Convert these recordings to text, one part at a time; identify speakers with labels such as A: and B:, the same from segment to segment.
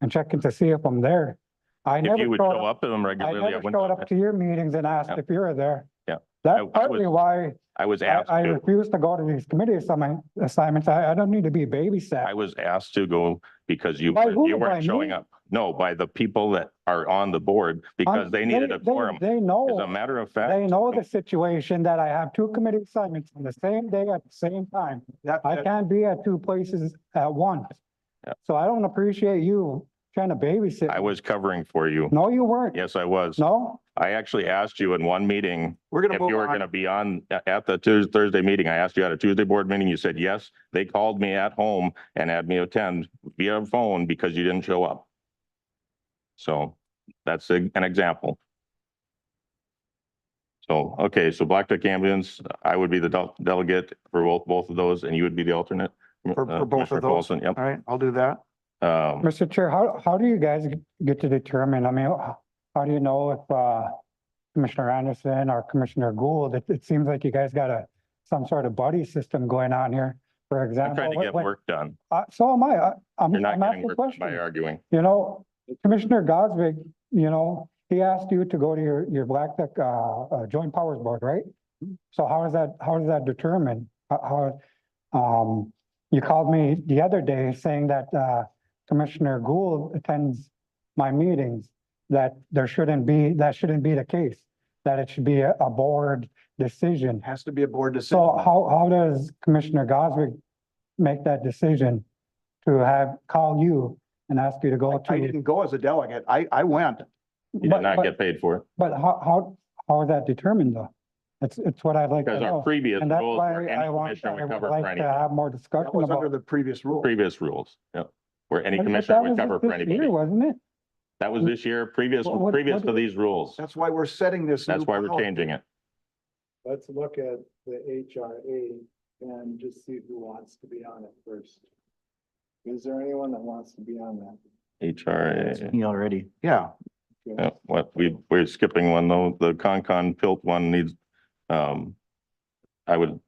A: and checking to see if I'm there. I
B: If
A: never
B: you would
A: showed
B: show
A: up,
B: up to them
A: I
B: regularly, I
A: never
B: wouldn't.
A: showed
B: know
A: up
B: that.
A: to your meetings and asked
B: Yeah.
A: if you were there.
B: Yeah. I- I
A: That's
B: was-
A: partly why
B: I was
A: I,
B: asked
A: I
B: to,
A: refuse to go to these committee assign- assignments. I, I don't need to be
B: I
A: babysat.
B: was asked to go because you,
A: By
B: weren't-
A: who?
B: you
A: By
B: weren't showing
A: me?
B: up. No, by the people that are on the board because
A: I'm-
B: they needed a
A: they-
B: quorum.
A: They
B: As a
A: know,
B: matter of
A: they
B: fact,
A: know the situation that I have two committee assignments on the same day at the same time.
C: That,
A: I
C: that-
A: can't be at two places at once.
B: Yeah.
A: So I don't appreciate you trying to babysit.
B: I was covering for you.
A: No, you weren't.
B: Yes, I was.
A: No,
B: I actually asked you in one meeting
C: we're gonna
B: if
C: move
B: you were
C: on.
B: gonna be on a- at the Tuesday, Thursday meeting. I asked you at a Tuesday board meeting. You said yes. They called me at home and had me attend via phone because you didn't show up. So that's a- an example. So, okay, so Blacktech Ambulance, I would be the del- delegate for both, both of those and you would be the alternate.
C: For- for
B: uh,
C: both of
B: Commissioner
C: those?
B: Paulson, Yep.
C: All right, I'll do that.
B: Um,
A: Mr. Chair, how, how do you guys g- get to determine, I mean, h- how do you know if, uh, Commissioner Anderson or Commissioner Gould, it, it seems like you guys got a, some sort of buddy system going on here, for
B: I'm
A: example.
B: trying to
A: when-
B: get
A: when-
B: work done.
A: uh, So am I, I, I'm,
B: You're not
A: I'm
B: getting
A: asking
B: work done by
A: questions.
B: arguing.
A: You know, Commissioner Gosvick, you know, he asked you to go to your, your Black Duck, uh, uh, Joint Powers Board, right? So how is that, how does that determine? How, how, um, you called me the other day saying that, uh, Commissioner Gould attends my meetings, that there shouldn't be, that shouldn't be the case, that it should be a, a board decision.
C: Has to be a board
A: So
C: decision.
A: how, how does Commissioner Goswick make that decision to have, call you and ask you to go to?
C: I didn't go as a delegate. I, I went.
B: You
A: But-
B: did not
A: but-
B: get paid for it.
A: But how, how, how is that determined though? It's, it's what I'd like to
B: Because our
A: know.
B: previous
A: And that's
B: rules
A: why
B: were any
A: I want,
B: commissioner
A: I
B: would
A: would
B: cover for
A: like to
B: anything.
A: have more
C: That
A: discussion
C: was under
A: about.
C: the previous rule.
B: Previous rules, yeah, where any
A: But- but
B: commissioner
A: that
B: would
A: was
B: cover
A: just
B: for
A: this year,
B: anybody.
A: Wasn't it?
B: That was this year, previous,
A: What- what-
B: previous
A: what-
B: to these rules.
C: That's why we're setting this.
B: That's
C: new
B: why we're
C: policy.
B: changing it.
D: Let's look at the HRA and just see who wants to be on it first. Is there anyone that wants to be on that?
B: HRA,
E: Me already.
C: Yeah,
D: Okay.
B: yeah, what, we, we're skipping one though, the Concon Pilt one needs, um, I would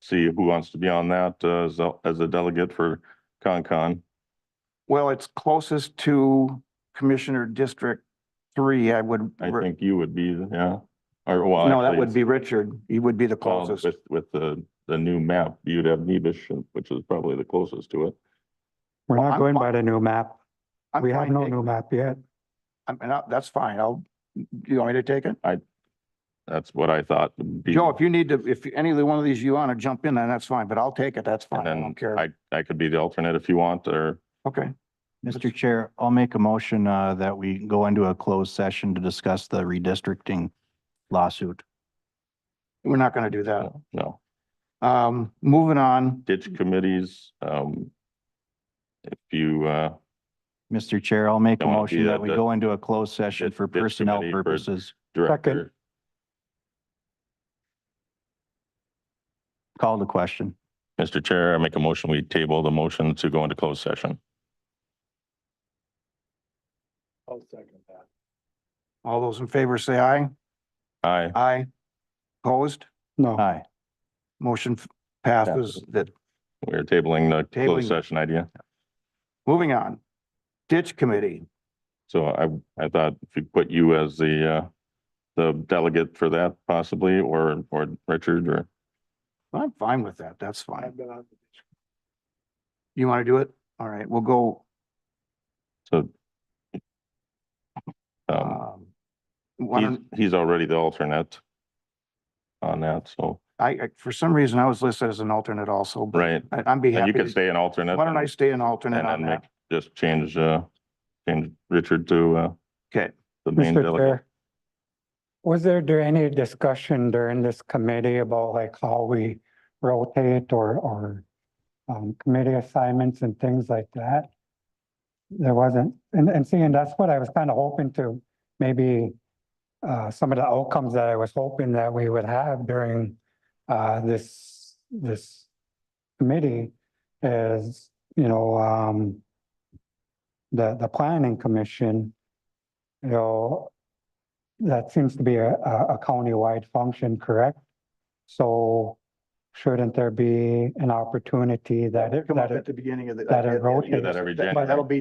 B: see who wants to be on that uh, as, a- as a delegate for Concon.
C: well, it's closest to Commissioner District Three, I would.
B: I think you would be, yeah, or well.
C: No, that
B: actually,
C: would be Richard. He would be the
B: well,
C: closest.
B: With, with the, the new map, you'd have Nebish, which is probably the closest to it.
A: We're
C: Well,
A: not
C: I'm
A: going
C: fine.
A: by the new map.
C: I'm
A: We have
C: fine
A: no
C: taking-
A: new map yet.
C: I mean, I- that's fine. I'll, you want me to take it?
B: That's what I thought. would be-
C: Joe, if you need to, if any of the one of these you want to jump in, then that's fine, but I'll take it. That's
B: And
C: fine. I
B: then
C: don't care.
B: I, I could be the alternate if you want, or
C: Okay.
E: Mr. Chair, I'll make a motion uh, that we go into a closed session to discuss the redistricting lawsuit.
C: We're not going to do that.
B: no,
C: Um, moving on.
B: ditch committees, um. If you, uh,
E: Mr. Chair, I'll make a
B: Don't wanna do
E: motion
B: that,
E: that we
B: that-
E: go into a closed session
B: that-
E: for
B: that
E: personnel
B: committee for-
E: purposes.
B: director,
E: Call the question.
B: Mr. Chair, I make a motion, we table the motion to go into closed session.
D: I'll second that.
C: All those in favor say aye.
B: Aye.
C: Aye. Opposed?
A: No,
E: Aye.
C: Motion f- passes. That,
B: We're tabling the
C: Tabling.
B: closed session idea.
C: moving on. Ditch Committee.
B: So I, I thought if you put you as the, uh, the delegate for that possibly, or, or Richard, or,
C: I'm fine with that. That's
D: I've
C: fine.
D: been on,
C: You want to do it? All right, we'll go,
B: so. Um,
C: um, why
B: he's,
C: don't-
B: he's already the alternate on that, so,
C: I, I- for some reason, I was listed as an alternate also, but
B: right.
C: I- I'd be
B: And
C: happy.
B: you could
C: to-
B: stay an alternate.
C: Why don't I stay an alternate
B: And
C: on
B: then
C: that?
B: make, just change, uh, change Richard to, uh,
C: Okay.
B: the main
A: Mr.
B: delegate.
A: Chair. Was there, there any discussion during this committee about like how we rotate or, or um, committee assignments and things like that? There wasn't, and, and seeing that's what I was kind of hoping to, maybe uh, some of the outcomes that I was hoping that we would have during uh, this, this committee is, you know, um, the, the planning commission, you know, that seems to be a, a a countywide function, correct? So shouldn't there be an opportunity that,
C: Come
A: that
C: up
A: it
C: at the beginning of the.
A: that it
C: at the end of the
A: rotates.
B: Do that every
C: That-
B: January.
C: That'll be